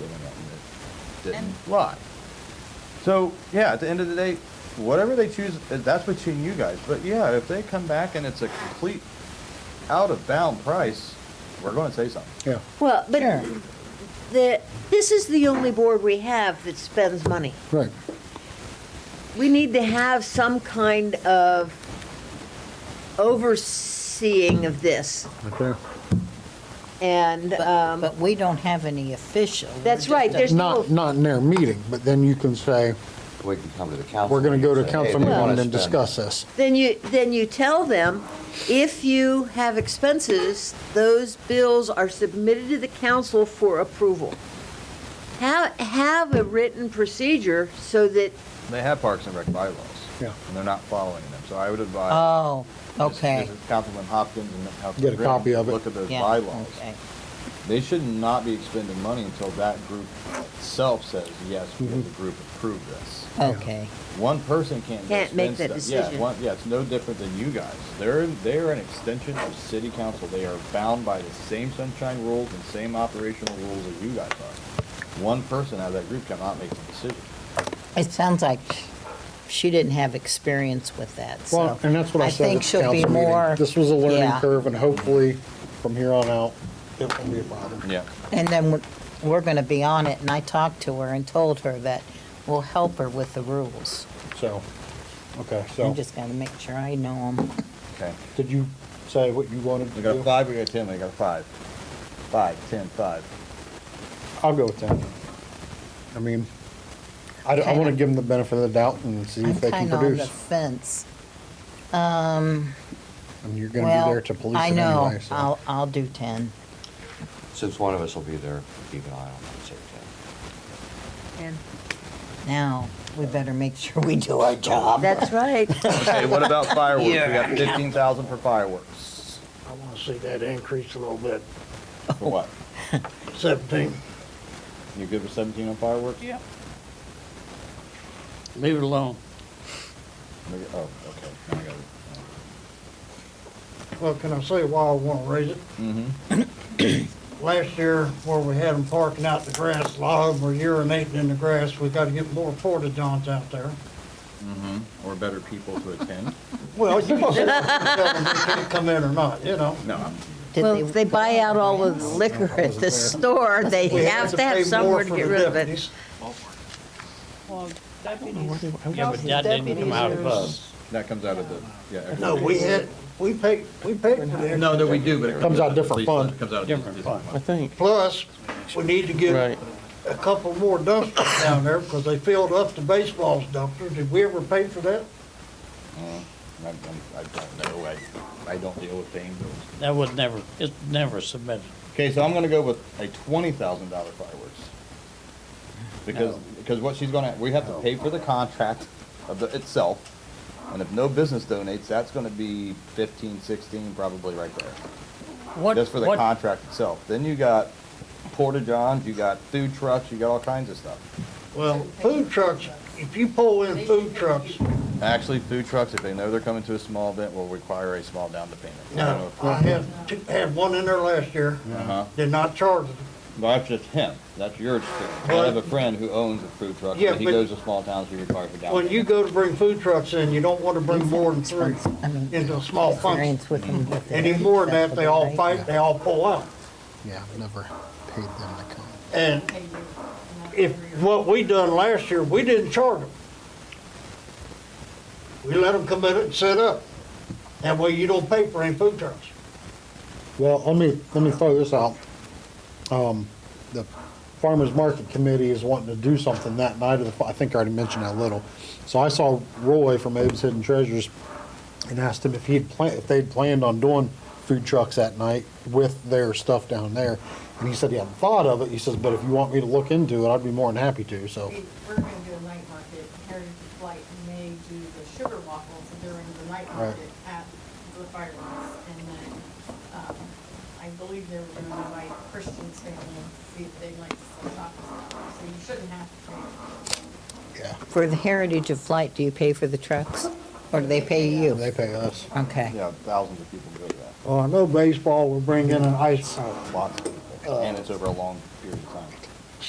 living on that didn't And- lie. So, yeah, at the end of the day, whatever they choose, uh, that's between you guys. But yeah, if they come back and it's a complete out of bound price, we're going to say something. Yeah. Well, but Yeah. the, this is the only board we have that spends money. Right. We need to have some kind of overseeing of this. Okay. And, But um, but we don't have any official. We're That's just right, a- there's- Not, not in their meeting, but then you can say, We can come to the council. we're going to go to and say, "Hey, council we wanna meeting and spend discuss this. then you, then you tell them, if you have expenses, those bills are submitted to the council for approval. Have, have a written procedure so that They have parks and rec bylaws. Yeah. And they're not following them. So I would advise. Oh, This- okay. this is Councilman Hopkins and Councilman. Get a Grimm. copy of it. Look at those Yeah, bylaws. okay. They should not be expending money until that group itself says, yes, we Mm-hmm. as a group approve this. Okay, One person can't. Can't make dispense that Yeah, decision. one, yeah, it's no different than you guys. They're, they're an extension of city council. They are bound by the same sunshine rules and same operational rules that you guys are. One person out of that group cannot make the decision. it sounds like she didn't have experience with that, so. Well, and that's what I said. at think the she'll be council meeting. more. This was a learning yeah. curve and hopefully from here on out, it won't be a problem. Yeah. And then we're- we're going to be on it, and I talked to her and told her that we'll help her with the rules. So, okay, I'm so just going to make sure I know them. Okay. did you say what you wanted to We got a do? five, we got a ten, we got a five. Five, ten, five. I'll go with that. I mean, I, want to give them the benefit of the doubt and see I'm if they can kind of on the produce. fence. And you're going to be Well, there to police it I know, anyway, so. I'll, I'll do 10. it." Since one of us will be there, keep an eye on it, say ten. and Now, we better make sure we do our job. That's right. Okay, what about fireworks? We got fifteen thousand for fireworks. I want to see that increase a little bit. For what? 17, You good with seventeen on fireworks? Yeah. Leave it alone. Oh, okay. Now I got it. well, can I say why I want to raise it? Mhm. Last year, where we had them parking out in the grass, a lot of them were urinating in the grass. We got to get more porta-johns out there. Mm-hmm. Or better people to attend? Well, you can tell them they can't come in or not, you know? No. I'm- Did Well, if they buy out all of the liquor at the store, they We have to have pay more somewhere to for get the rid of it. deputies. Yeah, but that didn't come out of us. That comes out of the, yeah. No, we had, we paid, we paid for the No, no, we do, but it Comes out different it fund. Comes out of Different different fund. think. Plus, we need to get Right. a couple more dumpsters down there because they filled up the baseball's dumpsters. Did we ever pay for that? I don't- I don't know. I, I don't deal with paying bills. That was never, it never submitted. Okay, so I'm gonna go with a twenty thousand dollar fireworks. Because, because what she's gonna, we have to pay for the contract of the, itself. And if no business donates, that's gonna be fifteen, sixteen, probably right there. What, Just for the what, contract itself. Then you got porta johns, you got food trucks, you got all kinds of stuff. Well, food trucks, if you pull in food trucks, Actually, food trucks, if they know they're coming to a small event, will require a small down payment. I don't know no, if- uh, I had, two- had one in there last year, Uh-huh. did not charge them. Well, That's just him. That's your experience. I Well- have a friend who owns a food truck, Yeah, and he but- goes to small towns, he requires a down When payment. you go to bring food trucks in, you don't want to bring more than three I mean, into a small function. Mm-hmm. experience with them. with the- Any more than that, they all fight, they all pull out. Yeah, I've never paid them to come. And if, what we done last year, we didn't charge them. We let them come in and set up. That way you don't pay for any food trucks. Well, let me, let me throw this out. Um, the Farmers Market Committee is wanting to do something that night of the, fi- I think I already mentioned that a little. So I saw Roy from Abe's Hidden Treasures and asked him if he'd planned, if they'd planned on doing food trucks that night with their stuff down there. And he said he hadn't thought of it. He says, but if you want me to look into it, I'd be more than happy to, so. We- We're gonna do a night market, Heritage Flight may do the sugar waffles during the night Right. market at the fireworks. And then, um, I believe they were gonna invite Christian's family, and see if they'd like to sell tacos. So you shouldn't have to pay. Yeah, For the Heritage of Flight, do you pay for the trucks? Or do they pay you? they pay us. Okay. Yeah, thousands of people go to that, Well, I know baseball will bring in an ice, Uh, lots of people, and it's over a long period of time.